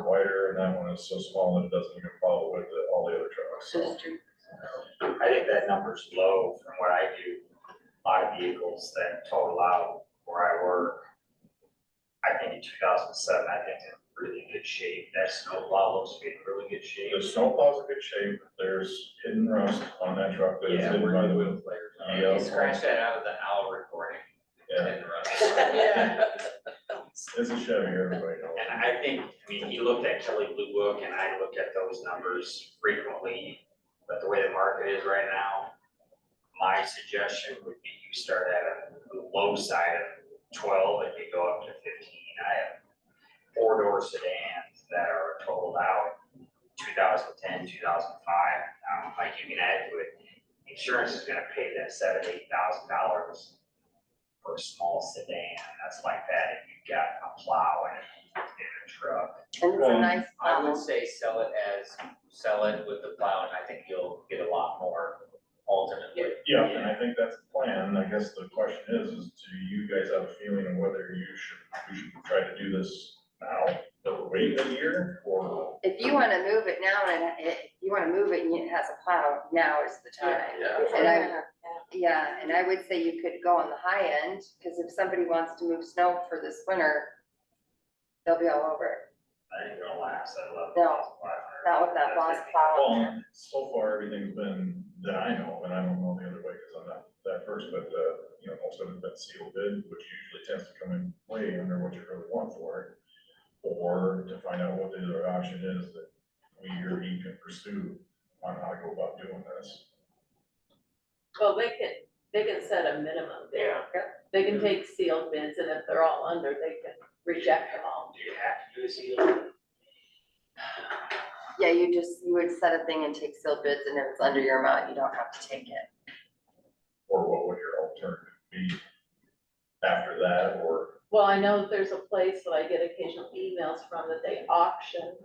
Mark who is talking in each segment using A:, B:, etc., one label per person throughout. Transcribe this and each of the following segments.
A: wider, and that one is so small that it doesn't even follow with the- all the other trucks, so.
B: Sister.
C: I think that number's low from what I do, a lot of vehicles that total out where I work. I think in two thousand seven, I think it's in really good shape, that snowplow looks to be in really good shape.
A: The snowplow's in good shape, there's hidden rust on that truck, that is
C: Yeah,
A: hidden
C: we're
A: by
C: gonna
A: the
C: wheel
A: wheel,
C: players.
A: Yeah.
C: Scratch that out of the hour recording.
A: Yeah.
C: And the rest.
B: Yeah.
A: it's a Chevy, everybody knows.
C: And I think, I mean, he looked at Kelly Blue Book and I look at those numbers frequently, but the way the market is right now, my suggestion would be you start at a low side of twelve and you go up to fifteen. I have four door sedans that are totaled out 2010, 2005. Um, like you can add to it, insurance is gonna pay that seven, eight thousand dollars for a small sedan. That's like that if you've got a plow and in a truck.
B: And it's a nice
D: I would
B: model.
D: say sell it as, sell it with the plow, and I think you'll get a lot more ultimately.
A: Yeah, and I think that's the plan, I guess the question is, is do you guys have a feeling of whether you should, we should try to do this now, or wait a year, or?
B: If you wanna move it now and it, if you wanna move it and it has a plow, now is the time. And I, yeah, and I would say you could go on the high end, cause if somebody wants to move snow for this winter, they'll be all over it.
C: I ain't gonna last, I love.
B: No, not with that boss plow on there.
A: Well, so far, everything's been, that I know, and I don't know the other way, because I'm not that first, but, uh, you know, most of it's been sealed bid, which usually tends to come in way under what you really want for it. Or to find out what the other option is that we or he can pursue on how to go about doing this.
E: Well, they can, they can set a minimum there.
C: Yeah.
E: They can take sealed bids and if they're all under, they can reject them all.
C: Do you have to do a seal?
B: Yeah, you just, you would set a thing and take sealed bids and if it's under your amount, you don't have to take it.
A: Or what would your alternative be after that, or,
E: Well, I know that there's a place that I get occasional emails from that they auction,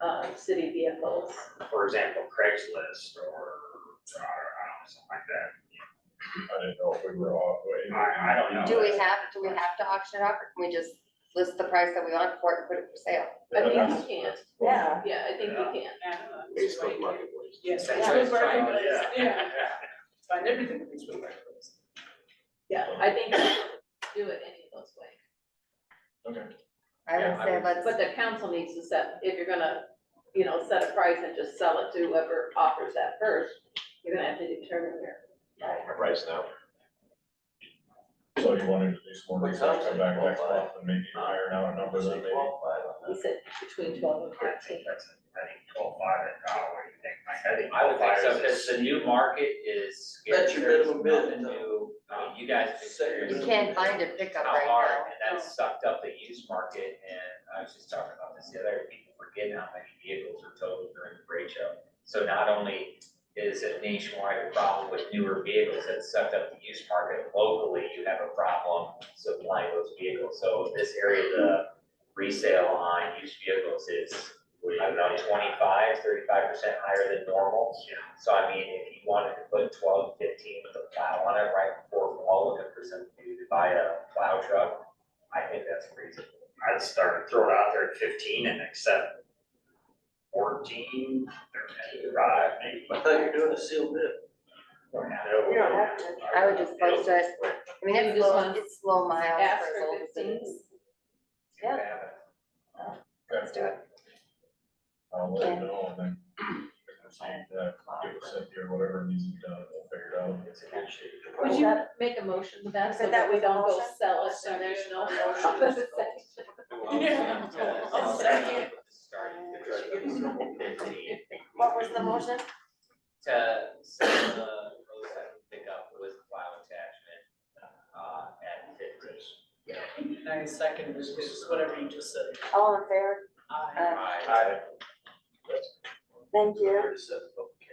E: uh, city vehicles.
C: For example, Craigslist or, or, I don't know, something like that.
A: I didn't know if we were off, wait.
C: I, I don't know.
B: Do we have, do we have to auction it off or can we just list the price that we want for it and put it for sale?
E: I think you
A: That's-
E: can.
A: that's-
F: Yeah.
E: Yeah, I think you can.
C: Facebook Marketplace.
F: Yes.
C: That's
F: Yeah.
C: what it's called,
F: Yeah.
C: yeah.
F: Find everything with these women.
E: Yeah, I think you can do it any of those ways.
A: Okay.
B: I
C: Yeah, I
B: would say
C: would-
B: let's,
E: But the council needs to set, if you're gonna, you know, set a price and just sell it to whoever offers that first, you're gonna have to determine your
C: Price now.
A: So you wanted to do some more research, come back next month and maybe
C: Uh,
A: iron out a number that maybe.
E: He said between twelve and
C: I think
E: thirteen.
C: that's, I think twelve five, I don't know what you think, Mike, I think
D: I would think so,
C: twelve five
D: because
C: is.
D: the new market is scarce,
F: That's your
D: there's
F: minimum bid,
D: nothing
F: though.
D: new, I mean, you guys have experienced
B: you can't find a pickup
D: how
B: right
D: hard,
B: now.
D: and that sucked up the used market, and I was just talking about this the other, day, people forget how many vehicles are totaled during the trade show. So not only is it nationwide problem with newer vehicles that sucked up the used market locally, you have a problem supplying those vehicles. So this area, the resale on used vehicles is, I don't know, 25, 35 percent higher than normal.
C: Yeah.
D: So I mean, if you wanted to put twelve, fifteen with a plow on it right before fall, looking for somebody to buy a plow truck, I think that's crazy.
C: I'd start, throw it out there at fifteen and accept fourteen, thirteen, five, maybe.
F: I thought you were doing a sealed bid.
C: You
F: don't have to.
B: I would just post it. I mean,
E: You
B: it's
E: just
B: low,
E: want-
B: it's low miles
E: Ask
B: for as
E: for
B: old as it
E: fifteen.
B: is.
D: Yeah.
A: Let's
B: do it.
A: I'll let
B: Yeah.
A: you know, and then. Yeah, give us a here, whatever needs to be done, we'll figure it out.
C: It's a good shape.
E: Would you make a motion to that so that we don't go sell it and there's no motion?
F: Yeah.
D: I'll second. Fifteen.
B: What was the motion?
D: to sell the oh seven pickup with plow attachment, uh, at fifteen.
F: Nine seconds, which is whatever you just said.
B: All in favor?
F: Aye.
B: Uh,
D: I,
B: Thank you.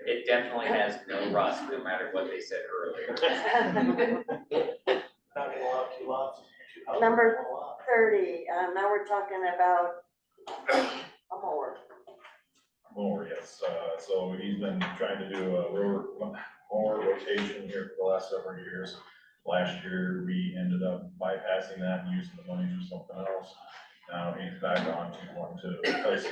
D: it definitely has no rust, no matter what they said earlier.
F: Not gonna lock you up.
G: Number- thirty, um, now we're talking about a mower.
A: Mower, yes, uh, so he's been trying to do a rower, mower rotation here for the last several years. Last year, we ended up bypassing that and using the money for something else. Now he's back on to one to replace